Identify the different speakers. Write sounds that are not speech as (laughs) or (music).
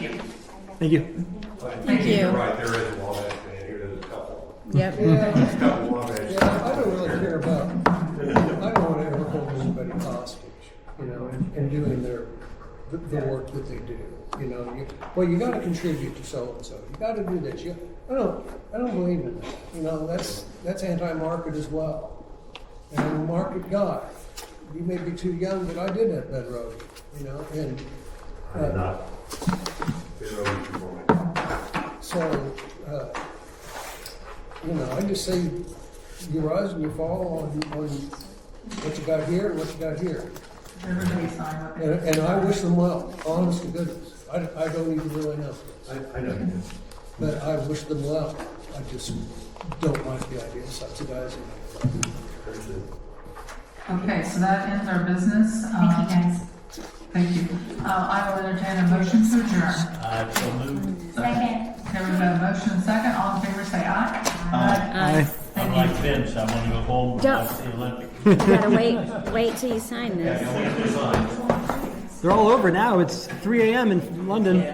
Speaker 1: Thank you.
Speaker 2: I think
Speaker 3: Thank
Speaker 2: you're
Speaker 3: you.
Speaker 2: Right, there is a Wabash man here, there's a couple,
Speaker 4: (laughs)
Speaker 3: Yep.
Speaker 5: Yeah,
Speaker 2: a couple Wabash.
Speaker 5: yeah, I don't really care about, I don't wanna ever hold anybody hostage, you know, and, and doing their, the, the work that they do. You know, you, well, you gotta contribute to so-and-so, you gotta do this, you, I don't, I don't believe in that. You know, that's, that's anti-market as well. And I'm a market guy. You may be too young, but I did have bedrock, you know, and,
Speaker 2: I did
Speaker 5: uh,
Speaker 2: not. Been over to Florida.
Speaker 5: So, uh, you know, I just say you rise and you fall on, on what you got here and what you got here.
Speaker 3: Everybody sign up.
Speaker 5: And, and I wish them well, honest to goodness. I, I don't even really know,
Speaker 2: I, I know you did.
Speaker 5: but I wish them well. I just don't like the idea of subsidizing.
Speaker 2: There's a-
Speaker 3: Okay, so that ends our business.
Speaker 6: Thank you,
Speaker 3: Um,
Speaker 6: guys.
Speaker 3: Thank you. Uh, I will entertain a motion to adjourn.
Speaker 7: I so moved.
Speaker 6: Second.
Speaker 3: There was a motion second. All in favor, say aye.
Speaker 1: Aye.
Speaker 7: I'm like Vince, I want to go home and
Speaker 4: Don't-
Speaker 7: watch the Olympics. (laughs)
Speaker 4: Gotta wait, wait till you sign this.
Speaker 1: They're all over now. It's 3 a.m. in London.